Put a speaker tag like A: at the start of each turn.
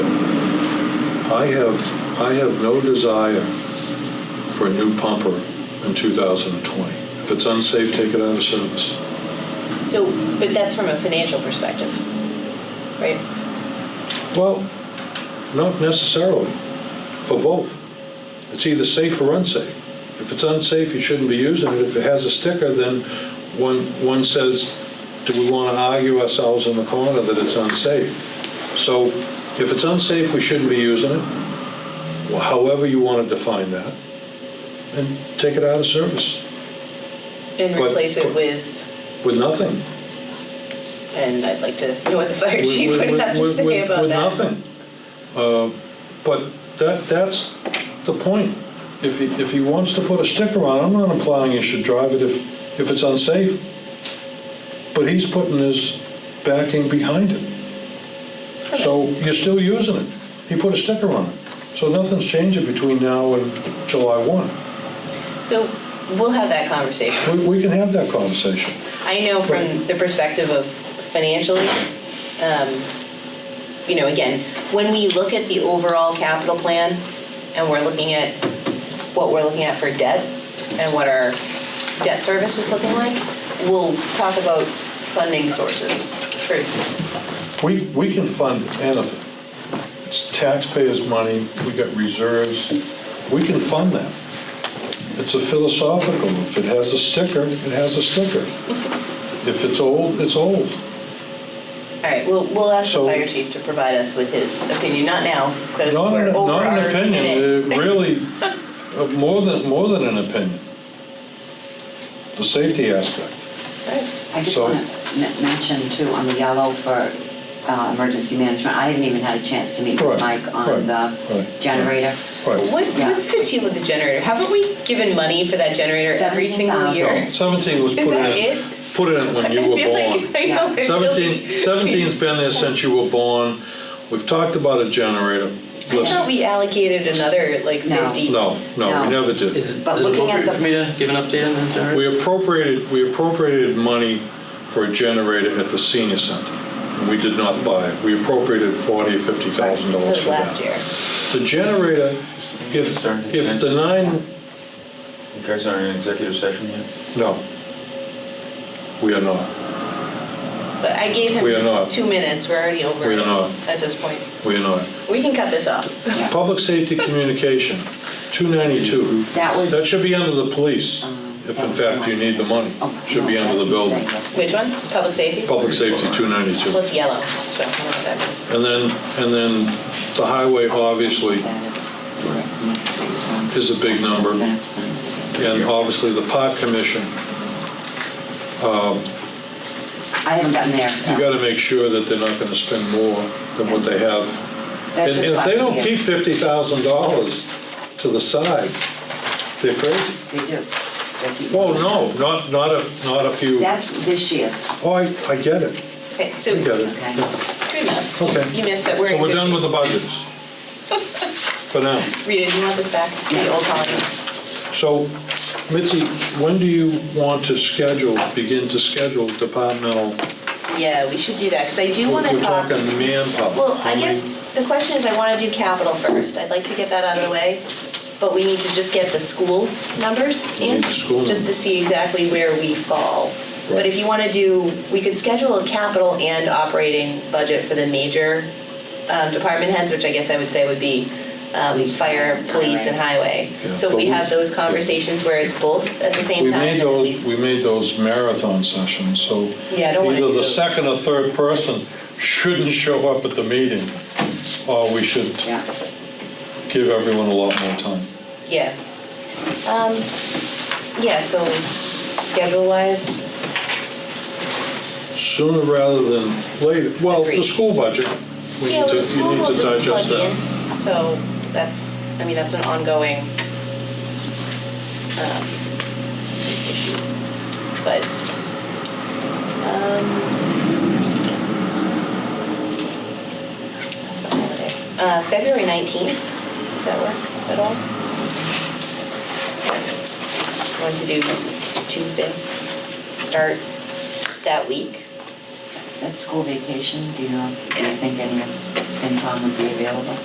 A: I have, I have no desire for a new pumper in 2020. If it's unsafe, take it out of service.
B: So, but that's from a financial perspective, right?
A: Well, not necessarily, for both. It's either safe or unsafe. If it's unsafe, you shouldn't be using it. If it has a sticker, then one, one says, do we want to argue ourselves in the corner that it's unsafe? So if it's unsafe, we shouldn't be using it, Well, however you want to define that, and take it out of service
B: And
A: But-
B: replace it with,
A: with nothing.
B: and I'd like to know what the fire
A: with-
B: chief
A: with-
B: would have to
A: with- with-
B: say about
A: with
B: that.
A: nothing. Uh, But that, that's the point. If he, if he wants to put a sticker on, it, I'm not implying you should drive it if, if it's unsafe. But he's putting his backing behind it. So you're still using it. He put a sticker on it. So nothing's changing between now and July 1.
B: So we'll have that conversation.
A: We, we can have that conversation.
B: I know from
A: Right.
B: the perspective of financially, um, you know, again, when we look at the overall capital plan and we're looking at what we're looking at for debt and what our debt service is looking like, we'll talk about funding sources for,
A: We, we can fund anything. It's taxpayers' money, we got reserves, we can fund that. It's a philosophical, if it has a sticker, it has a sticker. If it's old, it's old.
B: all right, we'll, we'll ask the
A: So-
B: fire chief to provide us with his opinion, not now, because
A: Not
B: we're
A: an-
B: over
A: not
B: our
A: an opinion,
B: minute.
A: uh, really, uh, more than, more than an opinion. The safety aspect.
B: All right.
C: I just
A: So-
C: want to mention too, on the yellow for uh, emergency management, I haven't even had a chance to meet
A: Right,
C: with Mike
A: right,
C: on the
A: right,
C: generator.
A: Right,
B: What,
C: Yeah.
B: What's the deal with the generator? Haven't we given money for that generator every single
C: 17,000.
B: year?
A: 17 was
B: Is
A: put in.
B: that it?
A: Put in when you
B: I
A: were
B: feel like-
A: born.
B: I know, I feel
A: 17,
B: like-
A: 17's been there since you were born. We've talked about a generator.
B: I thought
A: Listen,
B: we allocated another like
C: No.
B: 50.
A: no, no, we
C: No.
A: never
D: Is
A: did.
D: it,
C: But
D: is it
C: looking at
D: appropriate for me to give an update on the generator?
A: We appropriated, we appropriated money for a generator at the senior center. and We did not buy it. We appropriated 40, 50,000
B: That
A: dollars
B: was
A: for that.
B: last year.
A: The generator, if, if the nine,
E: You guys aren't in executive session yet?
A: no, we are not.
B: But I gave him
A: We are not.
B: two minutes. We're already over
A: We are not.
B: at this point.
A: We are not.
B: We can cut this off.
A: Public safety communication, 292.
C: That was- Um,
A: That should be under the police, if in fact you need the money.
C: Oh,
A: Should be
C: no,
A: under the
C: that's
A: building.
C: today,
B: Which one? Public safety?
A: Public safety, 292.
B: Well, it's yellow, so I don't know what that means.
A: And then, and then the highway, obviously,
C: yes.
A: is a big number. and obviously the park commission.
C: I haven't gotten there.
A: You got to make sure that they're not going to spend more than what they have.
C: That's
A: And and
C: just
A: if they don't
C: last year.
A: keep $50,000 to the side, they're crazy.
C: They do. They keep-
A: Well, Oh, no, not, not if, not if you,
C: That's this year's.
A: oh, I, I get it.
B: Okay, so
A: I get
B: good
A: it.
C: Okay.
B: enough.
A: Okay.
B: You missed that. We're
A: So
B: in
A: we're
B: good
A: done with the
B: shape.
A: budgets. For now.
B: Rita, do you want this back? The old colony.
A: So, Mitzi, when do you want to schedule, begin to schedule departmental?
B: Yeah, we should do that because I do want to
A: We're
B: talk.
A: talking manpower.
B: Well,
A: How
B: I
A: many-
B: guess the question is, I want to do capital first. I'd like to get that out of the way, but we need to just get the school numbers
A: We
B: in,
A: need the school
B: just to
A: numbers.
B: see exactly where we fall. But
A: Right.
B: if you want to do, we could schedule a capital and operating budget for the major um, department heads, which I guess I would say would be um, fire, police, and highway.
A: Yeah,
B: So if we
A: but
B: have
A: we-
B: those conversations where it's both at the same
A: We
B: time,
A: made
B: then at
A: those,
B: least.
A: we made those marathon sessions, so
B: Yeah, I don't wanna
A: either
B: do
A: the
B: those.
A: second or third person shouldn't show up at the meeting, or we should
C: Yeah.
A: give everyone a lot more time.
B: Yeah. Um, yeah, so schedule wise,
A: Sooner rather than later. Well, the
B: Agreed.
A: school budget, we
B: yeah,
A: need to,
B: with
A: you
B: school
A: need
B: will
A: to
B: just plug
A: digest that.
B: in. So that's, I mean, that's an ongoing um, issue. But, um, that's a holiday. Uh, February 19th, does that work at all? Want to do Tuesday, start that week?
C: That's school vacation, do you know, do you think any of FinCom would be available?